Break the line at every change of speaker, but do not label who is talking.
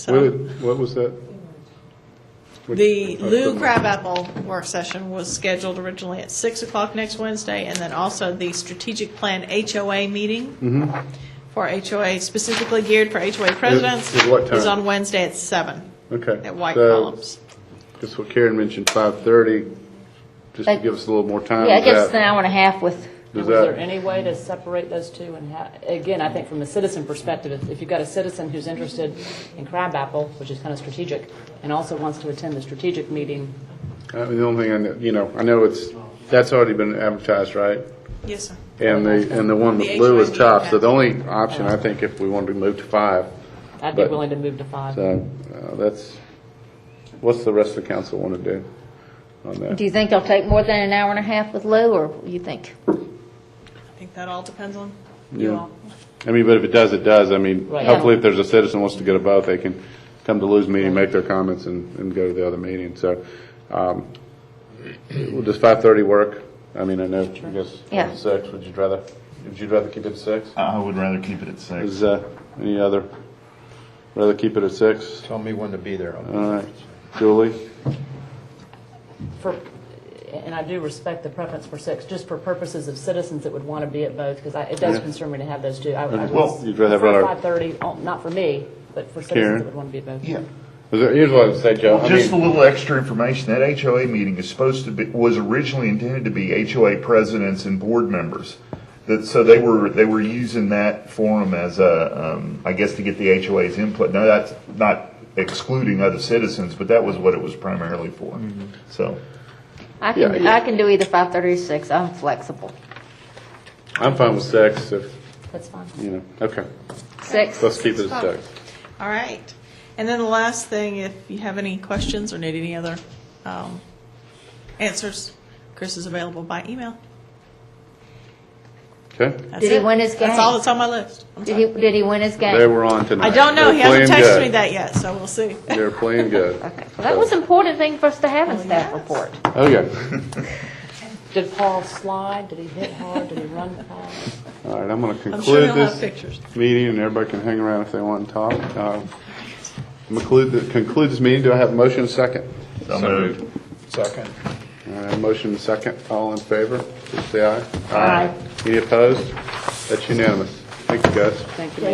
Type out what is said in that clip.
So-
What, did- what was that? Which-
The
I
Lou
couldn't-
Crabapple work session was scheduled originally at 6 o'clock next Wednesday, and then also the strategic plan HOA meeting for HOA, specifically geared for HOA presidents.
Mm-hmm. at what
Is
time?
on Wednesday at 7.
Okay.
At White
So,
Columns.
Just what Karen mentioned, 5:30, just to
Like-
give us a little more time.
Yeah, I
Is
guess
that-
an hour and a half with,
does
Was there
that-
any way to separate those two and ha again, I think from a citizen perspective, if- if you've got a citizen who's interested in crabapple, which is kind of strategic, and also wants to attend the strategic meeting,
I mean, The only thing, I know, you know, I know it's, that's already been advertised, right?
Yes, sir.
And the, and the one with
The
Lou is
HYD
chopped, so the
has-
only option, I think, if we wanted to move to five.
I'd be
But-
willing to move to five.
So uh, that's, what's the rest of the council want to do on
do
that?
you think it'll take more than an hour and a half with Lou, or you think?
I think that all depends on you
Yeah.
all.
I mean, but if it does, it does. I mean,
Right.
hopefully if there's a citizen who wants to go to both, they can come to Lou's meeting, make their comments and, and go to the other meeting. So, um, will does five thirty work? I mean, I know, I guess, uh,
Yeah.
six, would you rather, would you rather keep it at six?
I would rather keep it at six.
Is, uh, any other, rather keep it at six?
Tell me when to be there.
All right. Julie?
For, and I do respect the preference for six, just for purposes of citizens that would want to be at both, because it does
Yeah.
concern me to have those two. I- I would
Well, you'd rather have our-
Five thirty, oh, not for me, but for
Karen?
citizens that would want to be at both.
Yeah.
Is there, here's what I'd say, Joe. I
Just a
mean-
little extra information, that HOA meeting is supposed to be, was originally intended to be HOA presidents and board members. That, so they were, they were using that forum as a, um, I guess to get the HOA's input. Now, that's not excluding other citizens, but that was what it was primarily for,
Mm-hmm.
so.
I
Yeah,
can,
yeah.
I can do either five thirty or six, I'm flexible.
I'm fine with six, if,
That's fine.
you know, okay,
Six,
let's keep it at
Five.
six.
All right. And then the last thing, if you have any questions or need any other um, answers, Chris is available by email.
Okay,
That's
Did he
it.
win his
That's
game?
all that's on my list. I'm
did
sorry.
he, did he win his game?
they were on tonight.
I don't know.
They're
He hasn't
playing
texted
good.
me that yet, so we'll see.
They're playing good.
Okay, Well, that was an important thing for us to have in staff report.
Oh, yeah.
Did Paul slide? Did he hit hard? Did he run fast?
All right, I'm going to
I'm sure
conclude
he'll have
this
pictures.
meeting, and everybody can hang around if they want to talk. Uh, Conclude, the- conclude this meeting. Do I have a motion and a second?
So moved.
Second. All right, motion and a second. All in favor, please say aye.
Aye.
Any opposed? That's unanimous. Thank you, guys.
Thank you.